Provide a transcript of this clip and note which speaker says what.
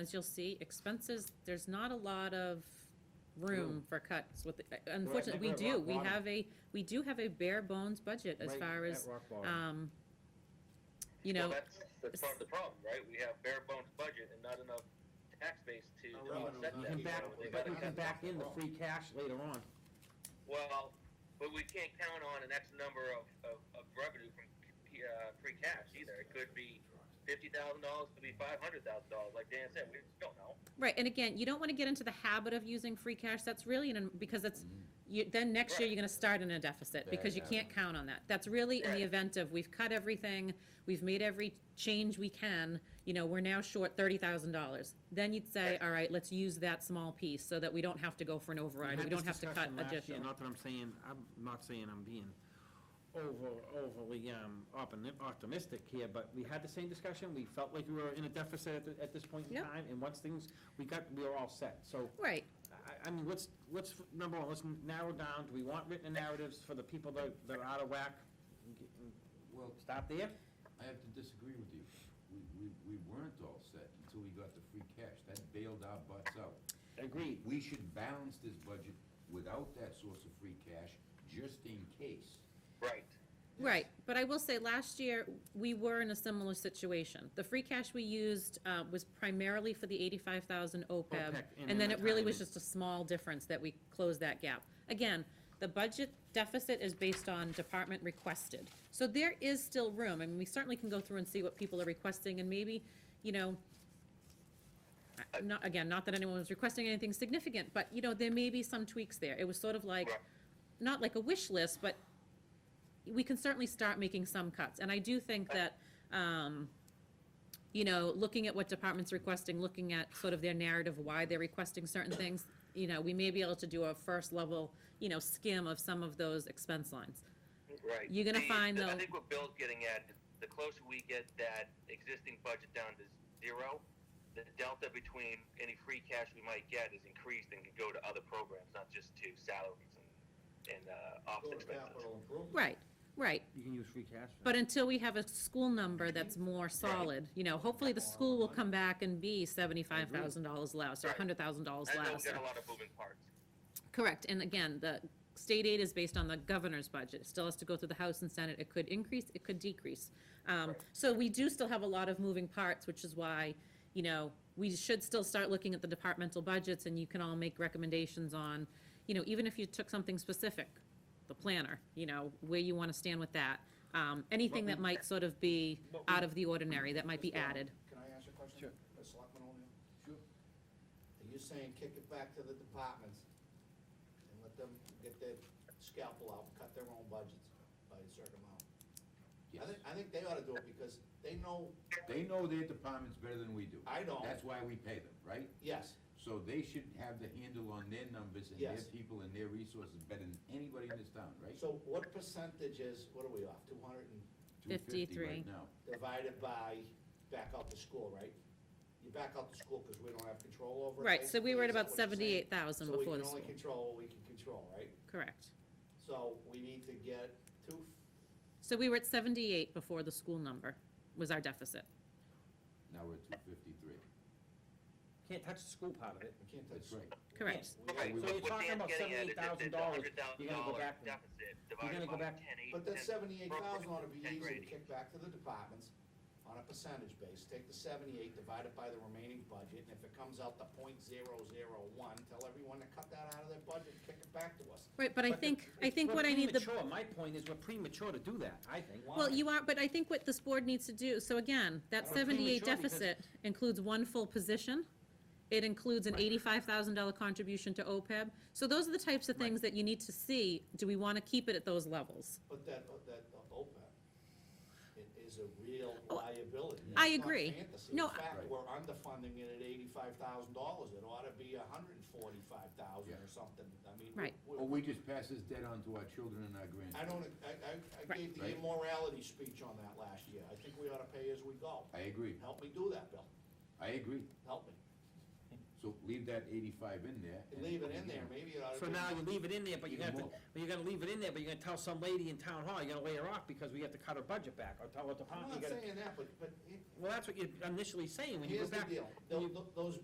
Speaker 1: as you'll see, expenses, there's not a lot of room
Speaker 2: Room.
Speaker 1: for cuts with, uh, unfortunately, we
Speaker 2: we're at
Speaker 1: do,
Speaker 2: rock
Speaker 1: we
Speaker 2: bottom.
Speaker 1: have a, we do have a bare bones budget as
Speaker 2: Right
Speaker 1: far
Speaker 2: at
Speaker 1: as,
Speaker 2: rock bottom.
Speaker 1: um, you know,
Speaker 3: Well, that's, that's part of the problem, right? We have bare bones budget and not enough tax base to
Speaker 4: Oh,
Speaker 3: to
Speaker 4: no, no,
Speaker 3: offset
Speaker 4: no,
Speaker 2: You can
Speaker 3: that.
Speaker 2: back,
Speaker 3: So we
Speaker 2: but
Speaker 3: gotta
Speaker 2: you can
Speaker 3: cut-
Speaker 2: back in the free cash later on.
Speaker 3: Well, but we can't count on an X number of, of, of revenue from, uh, free cash either. It could be fifty thousand dollars, could be five hundred thousand dollars, like Dan said, we don't know.
Speaker 1: right, and again, you don't wanna get into the habit of using free cash, that's really, an because that's,
Speaker 2: Mm-hmm.
Speaker 1: you, then next year,
Speaker 3: Right.
Speaker 1: you're gonna start in a deficit, because you can't count on that. That's really in the
Speaker 3: Right.
Speaker 1: event of, we've cut everything, we've made every change we can, you know, we're now short thirty thousand dollars. Then you'd say,
Speaker 3: Right.
Speaker 1: all right, let's use that small piece, so that we don't have to go for an override,
Speaker 2: had
Speaker 1: we
Speaker 2: this
Speaker 1: don't have to cut
Speaker 2: discussion last year,
Speaker 1: additional.
Speaker 2: Not that I'm saying, I'm not saying I'm being over, overly, um, optimi- optimistic here, but we had the same discussion, we felt like we were in a deficit at, the- at this point in
Speaker 1: Yep.
Speaker 2: time, and once things, we got, we were all set, so,
Speaker 1: Right,
Speaker 2: I, I mean, let's, let's, number one, let's narrow down, do we want written narratives for the people that, that are out of whack?
Speaker 4: Well,
Speaker 2: Stop there?
Speaker 4: I have to disagree with you. We, we, we weren't all set until we got the free cash. That bailed our butts out.
Speaker 2: Agreed.
Speaker 4: We should balance this budget without that source of free cash, just in case.
Speaker 3: Right.
Speaker 1: right, but I will say, last year, we were in a similar situation. The free cash we used uh, was primarily for the eighty-five thousand OPEB,
Speaker 2: OPEB and
Speaker 1: and then it really was
Speaker 2: retirement.
Speaker 1: just a small difference that we closed that gap. Again, the budget deficit is based on department requested, so there is still room, and we certainly can go through and see what people are requesting, and maybe, you know, I- not, again, not that anyone was requesting anything significant, but, you know, there may be some tweaks there. It was sort of like,
Speaker 3: Right.
Speaker 1: not like a wish list, but we can certainly start making some cuts. And I do think that, um, you know, looking at what departments are requesting, looking at sort of their narrative, why they're requesting certain things, you know, we may be able to do a first level, you know, skim of some of those expense lines.
Speaker 3: Right.
Speaker 1: You're gonna
Speaker 3: The-
Speaker 1: find
Speaker 3: the- I
Speaker 1: though-
Speaker 3: think what Bill's getting at, the closer we get that existing budget down to zero, the delta between any free cash we might get is increased and can go to other programs, not just to salaries and, and, uh, office expenses.
Speaker 1: Right, right.
Speaker 2: You can use free cash.
Speaker 1: But until we have a school number that's more solid, you know, hopefully the school will come back and be seventy-five thousand dollars less or a
Speaker 3: Right.
Speaker 1: hundred thousand dollars
Speaker 3: I know
Speaker 1: less.
Speaker 3: we've got
Speaker 1: or-
Speaker 3: a lot of moving parts.
Speaker 1: Correct, and again, the state aid is based on the governor's budget, It still has to go through the House and Senate, it could increase, it could decrease. Um, so we do still have a lot of moving parts, which is why, you know, we should still start looking at the departmental budgets, and you can all make recommendations on, you know, even if you took something specific, the planner, you know, where you wanna stand with that. Um, anything that might sort of be
Speaker 2: What we-
Speaker 1: out of the ordinary, that might be
Speaker 5: Mr. Allen,
Speaker 1: added.
Speaker 5: Can I ask a question?
Speaker 2: Sure.
Speaker 5: Mr. Selectman O'Neill?
Speaker 4: Sure.
Speaker 5: Are you saying kick it back to the departments and let them get their scalpel out, cut their own budgets by a certain amount?
Speaker 4: Yes.
Speaker 5: I think, I think they ought to do it because they know,
Speaker 4: They know their departments better than we do.
Speaker 5: I don't.
Speaker 4: That's why we pay them, right?
Speaker 5: yes,
Speaker 4: So they should have the handle on their numbers and their
Speaker 5: Yes.
Speaker 4: people and their resources better than anybody in this town, right?
Speaker 5: so what percentage is, what are we off, two hundred and
Speaker 4: Two fifty
Speaker 1: Fifty-three.
Speaker 4: right now.
Speaker 5: divided by, back out the school, right? You back out the school because we don't have control over it?
Speaker 1: Right, so we were at
Speaker 5: basically,
Speaker 1: about
Speaker 5: is that what you're saying?
Speaker 1: seventy-eight thousand before the
Speaker 5: So
Speaker 1: school,
Speaker 5: we can only control what we can control, right?
Speaker 1: correct.
Speaker 5: So we need to get two,
Speaker 1: So we were at 78 before the school number was our deficit.
Speaker 4: Now we're at two fifty-three.
Speaker 2: Can't touch the school part of it.
Speaker 5: we can't touch.
Speaker 4: That's right.
Speaker 1: Correct.
Speaker 5: We-
Speaker 3: Okay,
Speaker 2: so
Speaker 3: so
Speaker 2: you're
Speaker 3: what
Speaker 2: talking
Speaker 3: Dan's
Speaker 2: about
Speaker 3: getting at is if there's a
Speaker 2: $78,000,
Speaker 3: hundred thousand
Speaker 2: you're gonna go
Speaker 3: dollar
Speaker 2: back and-
Speaker 3: deficit
Speaker 2: gonna
Speaker 3: divided
Speaker 2: go
Speaker 3: by
Speaker 2: back-
Speaker 3: ten eight.
Speaker 5: But that seventy-eight thousand ought to be
Speaker 3: Ten
Speaker 5: easy to
Speaker 3: grand.
Speaker 5: kick back to the departments on a percentage base. Take the seventy-eight, divide it by the remaining budget, and if it comes out to point zero zero one, tell everyone to cut that out of their budget, kick it back to us.
Speaker 1: Right, but I
Speaker 2: But the-
Speaker 1: think, I
Speaker 2: it's-
Speaker 1: think
Speaker 2: we're
Speaker 1: what I need the,
Speaker 2: premature. My point is, we're premature to do that, I think.
Speaker 1: well, you are, but I think what this board needs to do, so again, that
Speaker 2: Well,
Speaker 1: 78
Speaker 2: premature because-
Speaker 1: deficit includes one full position. It includes an $85,000 contribution to OPEB. So those are the types of things that you need to see, do we want to keep it at those levels?
Speaker 5: But that, uh, that OPEB, it is a real liability.
Speaker 1: Oh, I
Speaker 5: It's not
Speaker 1: agree.
Speaker 5: fantasy.
Speaker 1: No,
Speaker 5: In
Speaker 1: I-
Speaker 5: fact,
Speaker 4: Right.
Speaker 5: we're underfunding it at eighty-five thousand dollars. It ought to be a hundred and forty-five thousand or something. I mean, we-
Speaker 1: Right.
Speaker 5: we-
Speaker 4: Or we just pass this debt on to our children and our grandchildren.
Speaker 5: I don't, I, I, I
Speaker 1: Right.
Speaker 5: gave the
Speaker 4: Right.
Speaker 5: immorality speech on that last year. I think we ought to pay as we go.
Speaker 4: I agree,
Speaker 5: Help me do that, Bill.
Speaker 4: I agree.
Speaker 5: Help me.
Speaker 4: So leave that eighty-five in there. and-
Speaker 5: Leave it in there, maybe it ought to
Speaker 2: So
Speaker 5: be-
Speaker 2: now you leave it in there, but you
Speaker 4: Even
Speaker 2: have to,
Speaker 4: more.
Speaker 2: but you're gonna leave it in there, but you're gonna tell some lady in town hall, you're gonna lay her off because we have to cut her budget back, or tell her to,
Speaker 5: I'm
Speaker 2: you
Speaker 5: not
Speaker 2: gotta,
Speaker 5: saying that, but, but it-
Speaker 2: well, that's what you're initially saying, when you go
Speaker 5: here's the
Speaker 2: back.
Speaker 5: deal,
Speaker 2: when you-
Speaker 5: Tho- tho- those